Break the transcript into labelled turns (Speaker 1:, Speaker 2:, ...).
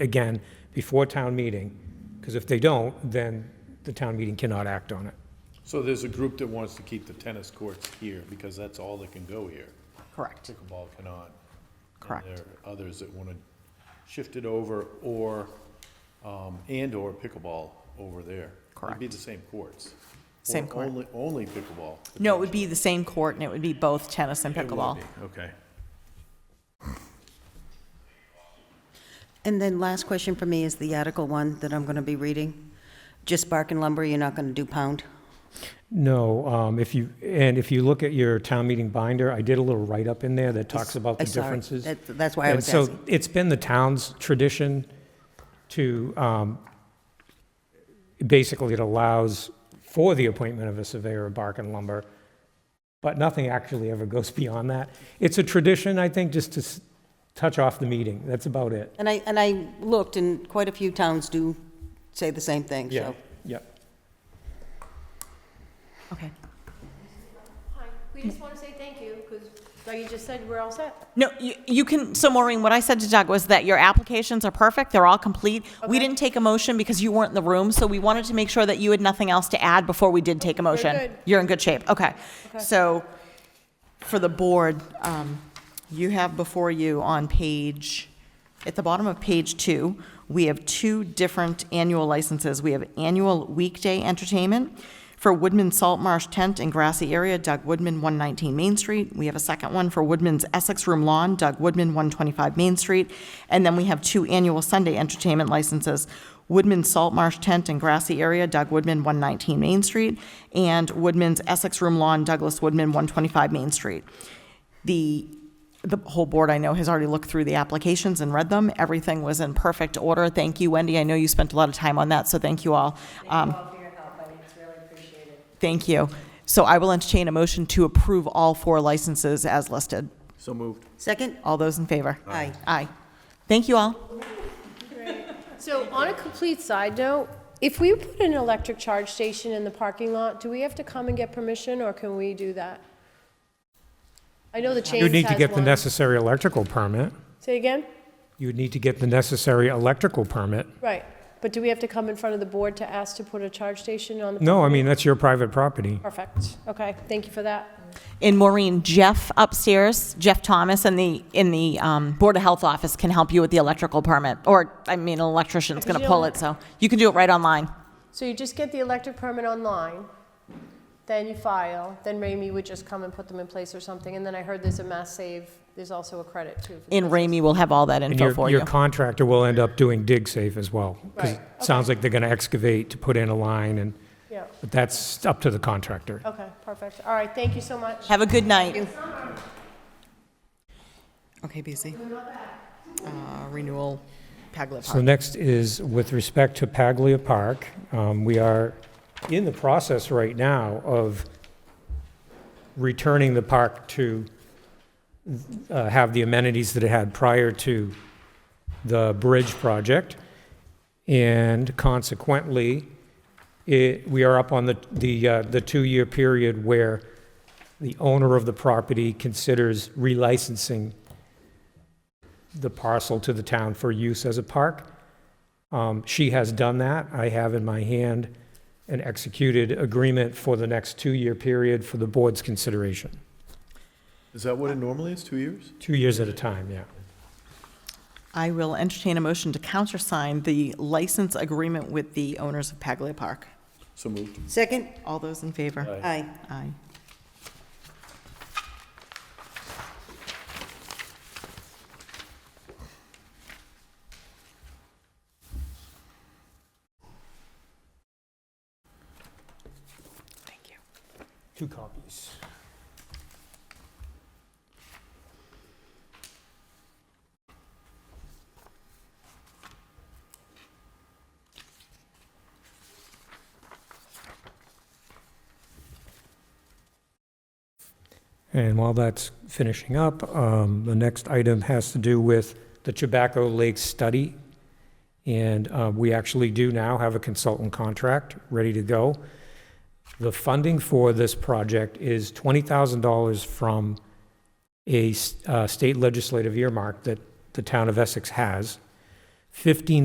Speaker 1: again before town meeting, because if they don't, then the town meeting cannot act on it.
Speaker 2: So there's a group that wants to keep the tennis courts here, because that's all that can go here.
Speaker 3: Correct.
Speaker 2: Pickleball cannot. And
Speaker 3: Correct.
Speaker 2: there are others that want to shift it over, or, um, and/or pickleball over there. It'd be
Speaker 3: Correct.
Speaker 2: the same courts.
Speaker 3: Same
Speaker 2: Or
Speaker 3: court.
Speaker 2: Only, only pickleball.
Speaker 3: No, it would be the same court and it would be both tennis and
Speaker 2: It would
Speaker 3: pickleball.
Speaker 2: be, Okay.
Speaker 4: And then last question for me is the Article 1 that I'm going to be reading. Just bark and lumber, you're not going to do pound?
Speaker 1: No, um, if you, and if you look at your town meeting binder, I did a little write-up in there that talks about the
Speaker 4: I saw it.
Speaker 1: differences.
Speaker 4: That- That's why I was
Speaker 1: And
Speaker 4: asking.
Speaker 1: so it's been the town's tradition to, um, basically it allows for the appointment of a surveyor of bark and lumber, but nothing actually ever goes beyond that. It's a tradition, I think, just to s- touch off the meeting. That's about it.
Speaker 4: And I, and I looked, and quite a few towns do say the same thing, so.
Speaker 1: Yep.
Speaker 3: Okay.
Speaker 5: Hi, we just want to say thank you, because Dougie just said we're all set.
Speaker 3: No, you, you can, so Maureen, what I said to Doug was that your applications are perfect, they're all complete. We
Speaker 5: Okay.
Speaker 3: didn't take a motion because you weren't in the room, so we wanted to make sure that you had nothing else to add before we did take a motion.
Speaker 5: good.
Speaker 3: You're in good shape, okay. So, for the board, um, you have before you on page, at the bottom of page two, we have two different annual licenses. We have annual weekday entertainment for Woodman Salt Marsh Tent and Grassy Area, Doug Woodman, 119 Main Street. We have a second one for Woodman's Essex Room Lawn, Doug Woodman, 125 Main Street. And then we have two annual Sunday entertainment licenses, Woodman Salt Marsh Tent and Grassy Area, Doug Woodman, 119 Main Street, and Woodman's Essex Room Lawn, Douglas Woodman, 125 Main Street. The, the whole board, I know, has already looked through the applications and read them. Everything was in perfect order. Thank you, Wendy. I know you spent a lot of time on that, so thank you all. Um, Thank you. So I will entertain a motion to approve all four licenses as listed.
Speaker 2: So moved.
Speaker 4: Second?
Speaker 3: All those in favor?
Speaker 4: Aye.
Speaker 3: Aye. Thank you all.
Speaker 5: So on a complete side note, if we put an electric charge station in the parking lot, do we have to come and get permission, or can we do that? I know the chain
Speaker 1: You'd need to
Speaker 5: has
Speaker 1: get the
Speaker 5: one.
Speaker 1: necessary electrical permit.
Speaker 5: Say again?
Speaker 1: You'd need to get the necessary electrical permit.
Speaker 5: Right, but do we have to come in front of the board to ask to put a charge station on the?
Speaker 1: No, I mean, that's your private property.
Speaker 5: Perfect, okay, thank you for that.
Speaker 3: And Maureen, Jeff upstairs, Jeff Thomas in the, in the um, Board of Health office can help you with the electrical permit. Or, I mean, an electrician's going to pull it, so you can do it right online.
Speaker 5: So you just get the electric permit online, then you file, then Ramey would just come and put them in place or something, and then I heard there's a mass save, there's also a credit too. for the
Speaker 3: And Ramey will have all that
Speaker 1: And
Speaker 3: info
Speaker 1: your,
Speaker 3: for
Speaker 1: your
Speaker 3: you.
Speaker 1: contractor will end up doing dig safe as well. 'cause
Speaker 5: Right,
Speaker 1: it sounds like they're gonna excavate to put in a line and,
Speaker 5: business. Yeah,
Speaker 1: but that's up to the contractor.
Speaker 5: okay, perfect, all right, thank you so much.
Speaker 3: Have a good night.
Speaker 6: Okay, BC. Uh, Renewal, Paglia
Speaker 1: So next is with respect to Paglia Park, um, we are in the process right now of returning the park to, uh, have the amenities that it had prior to the bridge project. And consequently, it, we are up on the, the, uh, the two-year period where the owner of the property considers relicensing the parcel to the town for use as a park. Um, She has done that. I have in my hand an executed agreement for the next two-year period for the board's consideration.
Speaker 2: Is that what it normally is, two years?
Speaker 1: Two years at a time, yeah.
Speaker 3: I will entertain a motion to countersign the license agreement with the owners of Paglia Park.
Speaker 2: So moved.
Speaker 4: Second?
Speaker 3: All those in favor?
Speaker 4: Aye.
Speaker 3: Aye. Thank you.
Speaker 1: Two copies. And while that's finishing up, um, the next item has to do with the Tobacco Lake Study. And uh, we actually do now have a consultant contract ready to go. The funding for this project is $20,000 from a s- uh, state legislative earmark that the town of Essex has. fifteen